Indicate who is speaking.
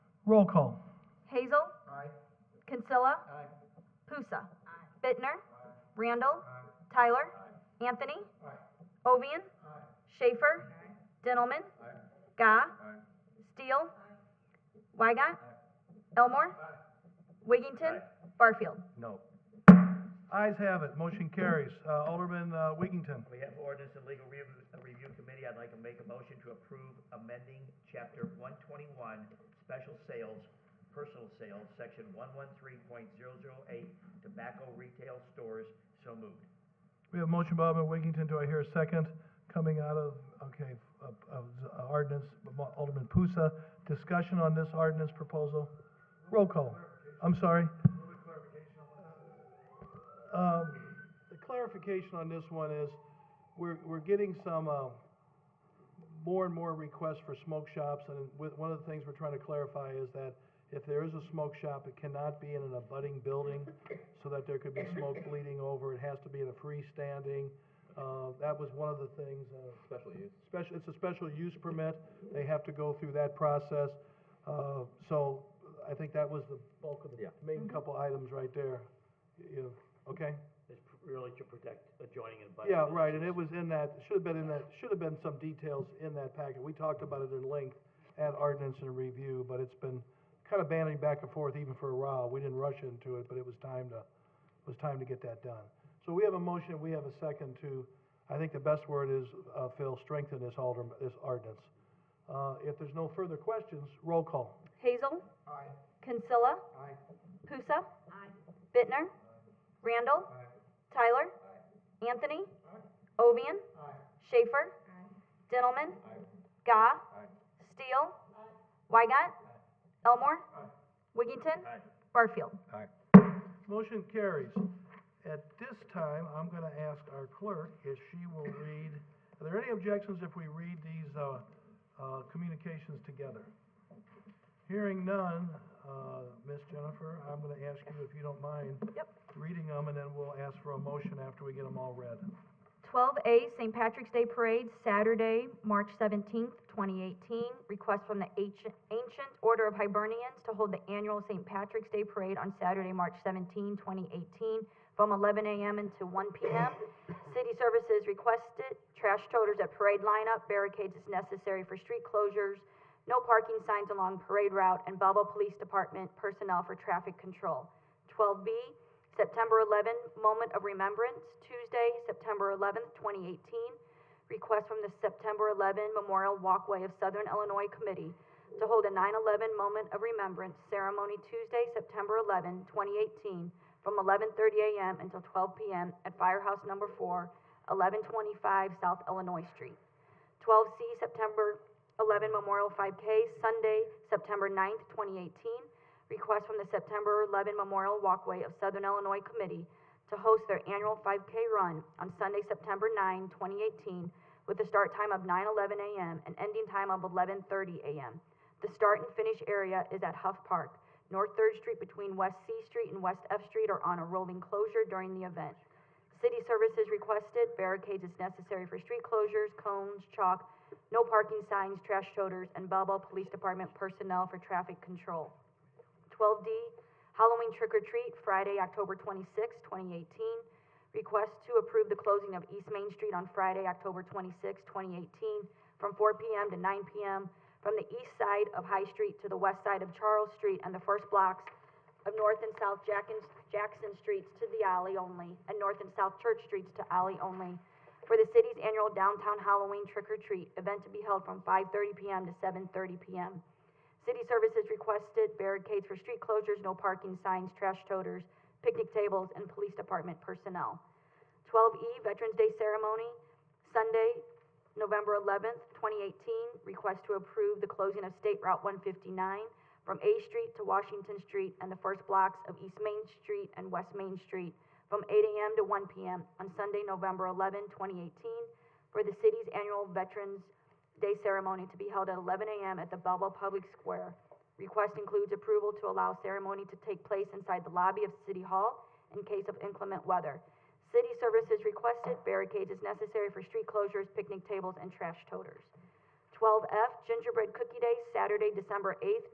Speaker 1: Roll call.
Speaker 2: Hazel. Kinsella. Pusa. Bittner. Randall. Tyler. Anthony. Ovian. Schaefer. Dintelman. Gah. Steele. Wygant. Elmore. Wiggington. Barfield.
Speaker 3: No.
Speaker 1: Ayes have it, motion carries. Uh, Alderman uh, Wiggington.
Speaker 3: On behalf of ordinance and legal review, uh, review committee, I'd like to make a motion to approve amending chapter one twenty-one, special sales, personal sales, section one one three point zero zero eight, tobacco retail stores, so moved.
Speaker 1: We have a motion by Alderman Wiggington, do I hear a second? Coming out of, okay, of, of uh, ordinance, Alderman Pusa. Discussion on this ordinance proposal? Roll call. I'm sorry? Um, the clarification on this one is, we're, we're getting some, uh, more and more requests for smoke shops, and with, one of the things we're trying to clarify is that if there is a smoke shop, it cannot be in an abutting building, so that there could be smoke bleeding over, it has to be in a freestanding, uh, that was one of the things, uh,
Speaker 4: Special use.
Speaker 1: special, it's a special use permit, they have to go through that process. Uh, so, I think that was the bulk of the
Speaker 4: Yeah.
Speaker 1: main couple items right there, you, okay?
Speaker 3: It's pr- really to protect adjoining and
Speaker 1: Yeah,
Speaker 3: budding
Speaker 1: right, and it
Speaker 3: businesses.
Speaker 1: was in that, should have been in that, should have been some details in that packet, we talked about it in length at ordinance and review, but it's been kind of banding back and forth even for a while, we didn't rush into it, but it was time to, it was time to get that done. So we have a motion, we have a second to, I think the best word is, uh, Phil, strengthen this alder, this ordinance. Uh, if there's no further questions, roll call.
Speaker 2: Hazel. Kinsella. Pusa. Bittner. Randall. Tyler. Anthony. Ovian. Schaefer. Dintelman. Gah. Steele. Wygant. Elmore. Wiggington. Barfield.
Speaker 1: Motion carries. At this time, I'm gonna ask our clerk if she will read, are there any objections if we read these, uh, uh, communications together? Hearing none, uh, Ms. Jennifer, I'm gonna ask you, if you don't mind.
Speaker 2: Yep.
Speaker 1: Reading them, and then we'll ask for a motion after we get them all read.
Speaker 2: Twelve A, St. Patrick's Day Parade, Saturday, March seventeenth, twenty eighteen. Request from the Ancient Ancient Order of Hibernians to hold the annual St. Patrick's Day Parade on Saturday, March 17, 2018, from eleven AM until one PM. City services requested, trash toters at parade lineup, barricades as necessary for street closures, no parking signs along parade route, and Belleville Police Department personnel for traffic control. Twelve B, September 11, Moment of Remembrance, Tuesday, September 11, 2018. Request from the September 11 Memorial Walkway of Southern Illinois Committee to hold a 9/11 Moment of Remembrance ceremony Tuesday, September 11, 2018, from 11:30 a.m. until 12 p.m. at Firehouse Number 4, 1125 South Illinois Street. 12C, September 11 Memorial 5K, Sunday, September 9th, 2018. Request from the September 11 Memorial Walkway of Southern Illinois Committee to host their annual 5K run on Sunday, September 9, 2018, with a start time of 9:11 a.m. and ending time of 11:30 a.m. The start and finish area is at Huff Park, North Third Street between West C Street and West F Street are on a rolling closure during the event. City services requested, barricades as necessary for street closures, cones, chalk, no parking signs, trash toters, and Belleville Police Department personnel for traffic control. Twelve D, Halloween trick or treat, Friday, October twenty-sixth, twenty eighteen. Request to approve the closing of East Main Street on Friday, October twenty-sixth, twenty eighteen, from four PM to nine PM, from the east side of High Street to the west side of Charles Street and the first blocks of North and South Jackson, Jackson Streets to the alley only, and North and South Church Streets to alley only, for the city's annual downtown Halloween trick or treat event to be held from five thirty PM to seven thirty PM. City services requested barricades for street closures, no parking signs, trash toters, picnic tables, and police department personnel. Twelve E, Veterans Day Ceremony, Sunday, November eleventh, twenty eighteen. Request to approve the closing of State Route one fifty-nine from A Street to Washington Street and the first blocks of East Main Street and West Main Street from eight AM to one PM on Sunday, November 11, 2018, for the city's annual Veterans Day ceremony to be held at eleven AM at the Belleville Public Square. Request includes approval to allow ceremony to take place inside the lobby of City Hall in case of inclement weather. City services requested, barricades as necessary for street closures, picnic tables, and trash toters. Twelve F, Gingerbread Cookie Day, Saturday, December eighth,